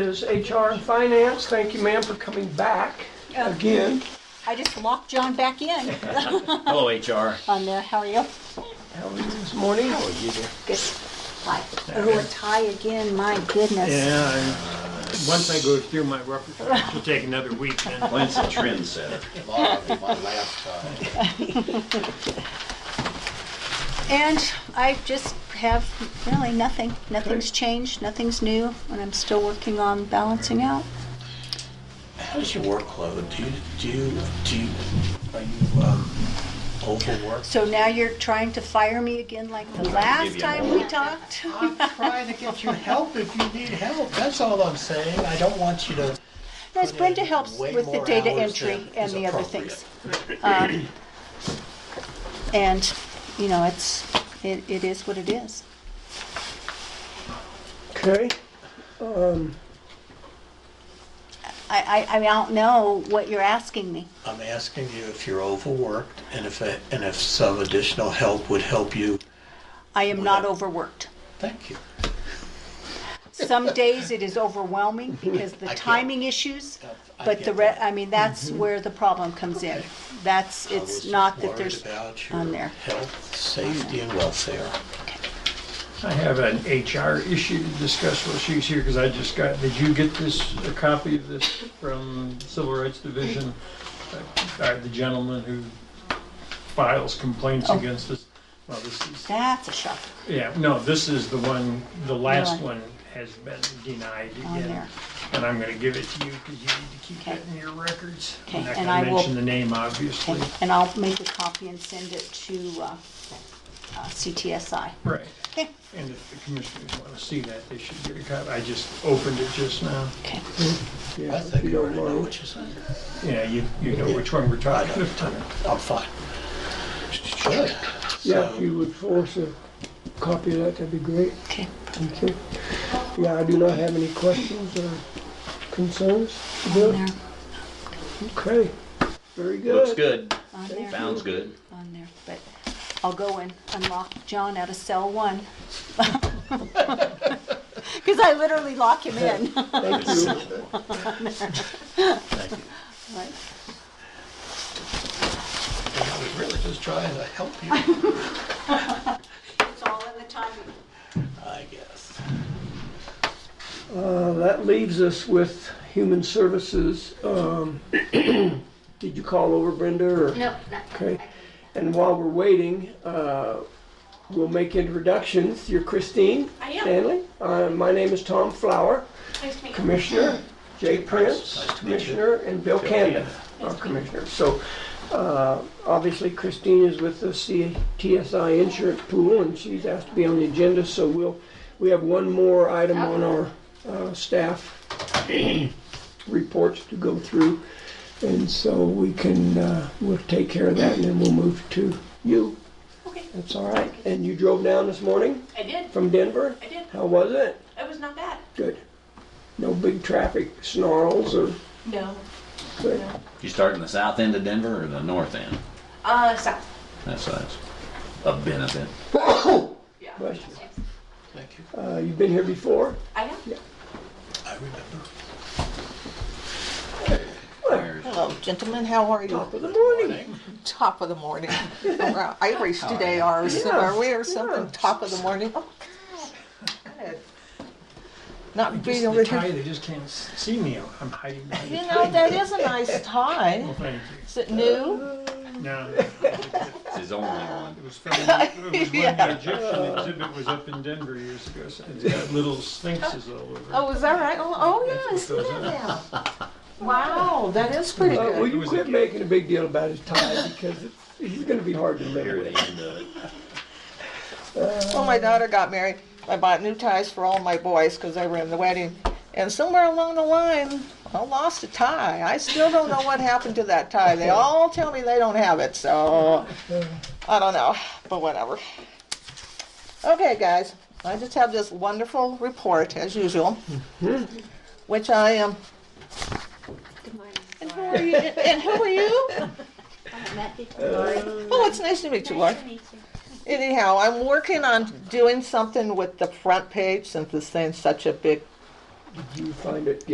is HR and Finance. Thank you, ma'am, for coming back again. Um, I just locked John back in Hello, HR. on there. How are you? How are you this morning? How are you? Good. Hi. Oh, a tie again. My goodness. Yeah, and once I go through my repertoire, it'll take another week then. Glenn's a trendsetter. Bob, my last time. And I just have really nothing. Nothing's changed. Nothing's new. And I'm still working on balancing out. How's your workload? Do you, do you, do you, are you, um, overworked? So now you're trying to fire me again like the give last you time we talked? I'm trying to get you help if you need help, that's all I'm saying. I don't want you to. Yes, Brenda helps Way with the more data hours entry than and is the other appropriate. things. Um, And, you know, it's, it, it is what it is. Okay. I, I, I mean, I don't know what you're asking me. I'm asking you if you're overworked and if, a- and if some additional help would help you. I am not overworked. Thank you. Some days it is overwhelming because the I get it. timing issues, I but the get re, that. Mm-hmm. I mean, that's where the problem comes in. Okay. That's, I was it's just not that worried there's, about your on there. Health, safety and welfare. I have an HR issue to discuss while she's here, because I just got, did you get this, a copy of this from Civil Rights Division? Uh, The gentleman who files complaints Oh. against us? Well, this is, that's a shock yeah, no, this is the one, the last Really? one has been denied on again. there. And I'm gonna give it to you, because you need to keep Okay. that in your records. Okay, I'm not and gonna I will- mention the name, obviously. Okay, And I'll make a copy and send it to, uh, uh, CTSI. Right. Okay. And if the commissioners want to see that, they should get a copy. I just opened it just now. Okay. Yeah, I if think you I don't already know mind. what you're saying. Yeah, you, you know which one we're I talking don't, about. I'm- I'm fine. Good. Yeah, if you would force a copy of that, that'd be great. Okay. Okay. Yeah, I do not have any questions or concerns. On there, Okay, very good. Looks good. on there. Sounds good. on there, but I'll go and unlock John out of cell one. Because I literally lock him in. Thank you. Thank you. Right. I was really just trying to help you, It's all in the timing. I guess. Uh, That leaves us with Human Services. Um, Did you call over Brenda or? No. Okay. And while we're waiting, uh, we'll make introductions. You're Christine I am. Stanley. Uh, My name is Tom Flower, Nice to meet you. Commissioner. Jay Prince, nice to meet you. Commissioner, and Bill Canada, our Commissioner. So uh, obviously Christine is with the CTSI Insurance Pool, and she's asked to be on the agenda, so we'll, we have one more item on our uh, staff reports to go through. And so we can, uh, we'll take care of that, and then we'll move to you. Okay, That's all right. And you drove down this morning I did. from Denver? I did. How was it? It was not bad. Good. No big traffic snarls or No. Good. You start in the south end of Denver or the north end? Uh, south. That's that's a benefit. Yeah. Bless you. Thank you. Uh, you've been here before? I am. I remember. There's- Hello, gentlemen, how are you? Top of the morning. Top of the morning. We're Irish today, are we, are we or something, yeah. top of the morning? Oh, God. Not Just being the over tie, here. they just can't s- see me. I'm hiding behind the You tie. know, that is a nice tie. Well, thank Is it new? you. No, It's his only one. it was from, it was when the Egyptian exhibit was up in Denver years ago, so it's got little sphinxes all over. uh, Oh, is that right? Oh, oh, yeah, I see that now. Wow, that is pretty Uh, will good. you quit making a big deal about his tie because it's, it's going to be hard to live Here at with. the end of it. Well, my daughter got married. I bought new ties for all my boys because they were in the wedding. And somewhere along the line, I lost a tie. I still don't know what happened to that tie. They all tell me they don't have it, so I don't know, but whatever. Okay, guys, I just have this wonderful report as usual, which I am. Good morning. And who are you? And who are you? Oh, it's nice to meet you, Laura. Anyhow, I'm working on doing something with the front page since this thing's such a big Did you find it?